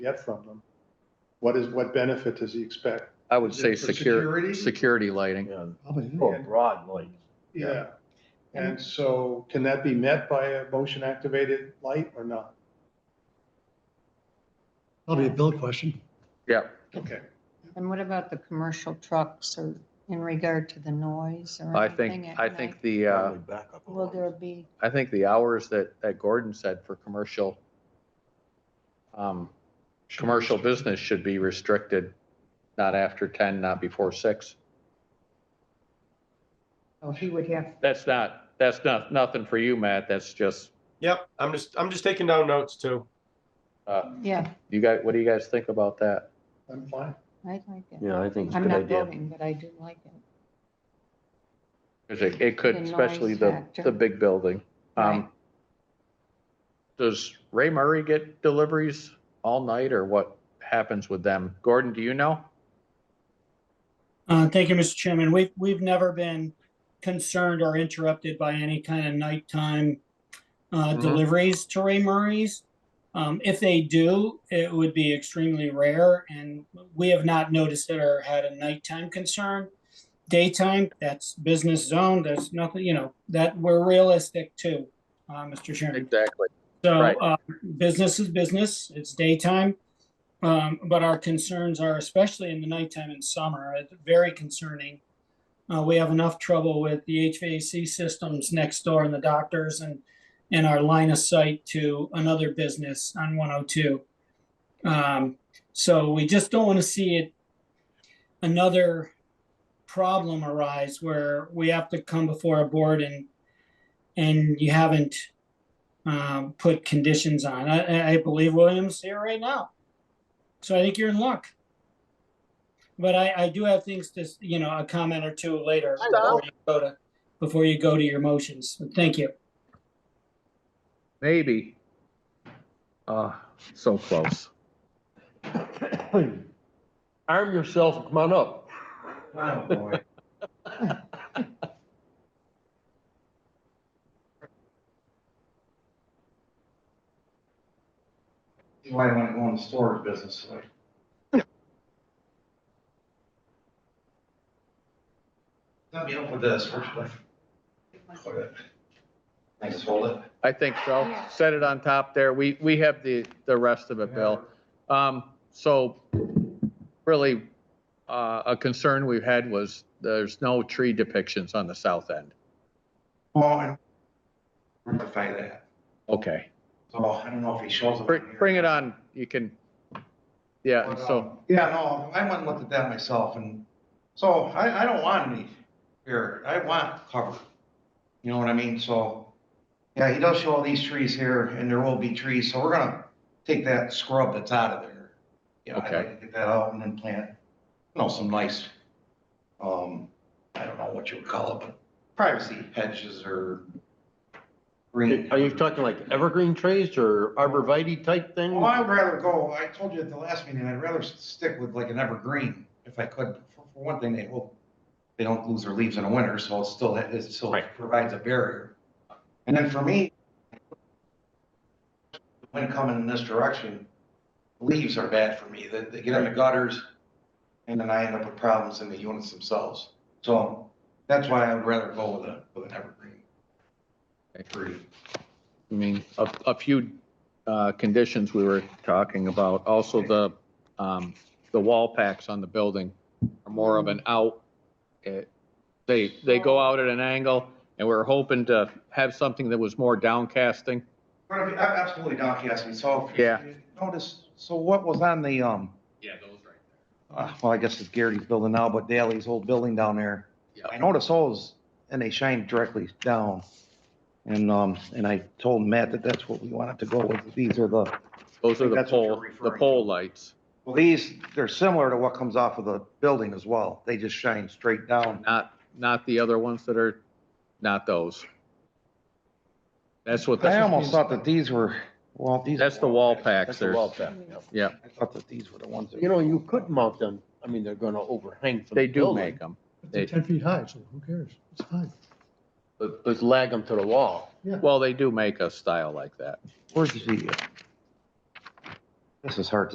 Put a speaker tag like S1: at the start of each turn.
S1: get from them? What is, what benefit does he expect?
S2: I would say
S1: For
S2: secure,
S1: security?
S2: security lighting.
S3: Yeah,
S1: more
S3: broad lights.
S1: Yeah. And so can that be met by a motion activated light or not?
S4: Probably a bill question.
S2: Yeah,
S1: Okay.
S5: And what about the commercial trucks or in regard to the noise or
S2: I
S5: anything
S2: think,
S5: at
S2: I think
S5: night?
S2: the, uh,
S5: Will there be,
S2: I think the hours that, that Gordon said for commercial, um, commercial business should be restricted, not after ten, not before six.
S5: oh, he would have,
S2: That's not, that's not, nothing for you, Matt. That's just,
S6: Yep, I'm just, I'm just taking down notes too.
S2: uh,
S5: yeah,
S2: you guys, what do you guys think about that?
S1: I'm fine.
S5: I like it.
S3: Yeah, I think it's a
S5: I'm
S3: good
S5: not
S3: idea.
S5: voting, but I do like it.
S2: 'Cause it, it could,
S5: The
S2: especially
S5: noise
S2: the,
S5: factor.
S2: the big building. Um,
S5: Right.
S2: Does Ray Murray get deliveries all night or what happens with them? Gordon, do you know?
S7: Uh, Thank you, Mr. Chairman. We've, we've never been concerned or interrupted by any kind of nighttime uh,
S2: Mhm.
S7: deliveries to Ray Murray's. Um, If they do, it would be extremely rare, and we have not noticed it or had a nighttime concern. Daytime, that's business zone, there's nothing, you know, that we're realistic too, uh, Mr. Chairman.
S2: Exactly.
S7: So,
S2: Right.
S7: uh, business is business, it's daytime. Um, but our concerns are especially in the nighttime and summer, it's very concerning. Uh, we have enough trouble with the HVAC systems next door and the doctors and, and our line of sight to another business on one oh two. Um, so we just don't want to see it, another problem arise where we have to come before a board and, and you haven't um, put conditions on. I, I believe Williams here right now. So I think you're in luck. But I, I do have things to, s- you know, a comment or two later before you go to, before you go to your motions. Thank you.
S2: Maybe. Uh, so close.
S3: Arm yourself, and come on up.
S8: That's why I want to go in the storage business, like. Let me help with this first, but. I just hold it.
S2: I think so. Set it on top there. We, we have the, the rest of it, Bill. Um, so really, uh, a concern we've had was there's no tree depictions on the south end.
S8: Well, and rectify that.
S2: Okay,
S8: So I don't know if he shows up.
S2: bring,
S8: here.
S2: bring it on. You can, yeah,
S8: But,
S2: so,
S8: um, Yeah, no, I went and looked at that myself and, so I, I don't want any here. I want cover. You know what I mean? So, yeah, he does show all these trees here and there will be trees, so we're gonna take that scrub that's out of there. Yeah, I'd
S2: Okay.
S8: like to get that out and then plant, you know, some nice, um, I don't know what you would call it, but privacy hedges or green.
S3: Are you talking like evergreen trees or arborvitae type thing?
S8: Well, I'd rather go, I told you at the last meeting, I'd rather s- stick with like an evergreen if I could. For for one thing, they hope they don't lose their leaves in the winter, so it's still, it still
S3: Right.
S8: provides a barrier. And then for me, when coming in this direction, leaves are bad for me. They, they get in the gutters and then I end up with problems in the units themselves. So that's why I'd rather go with a, with an evergreen tree.
S2: I mean, a, a few, uh, conditions we were talking about. Also the, um, the wall packs on the building are more of an out. It- They, they go out at an angle and we're hoping to have something that was more downcasting.
S8: But if- ab- Absolutely, Doc, yes, and so. if you
S2: Yeah.
S8: Notice, so what was on the, um,
S2: Yeah, those right there.
S8: uh, well, I guess it's Garrity's building now, but Daley's old building down there.
S2: Yeah.
S8: I noticed those, and they shine directly down. And, um, and I told Matt that that's what we wanted to go with. These are the,
S2: Those are the
S8: That's what you're
S2: pole, the
S8: referring to.
S2: pole lights,
S8: well, these, they're similar to what comes off of the building as well. They just shine straight down.
S2: not, not the other ones that are, not those. That's what,
S8: I
S2: the-
S8: almost thought that these were, well, these.
S2: that's the wall packs.
S3: That's a wall
S2: There's,
S3: pack, yeah.
S8: I thought that these were the ones. that-
S3: You know, you could mount them. I mean, they're gonna overhang from the
S2: they do
S3: building.
S2: make them.
S4: They're ten feet high, so who cares? It's fine.
S3: But, but lag them to the wall.
S2: Well, they do make a style like that.
S8: Where's the? This is hard to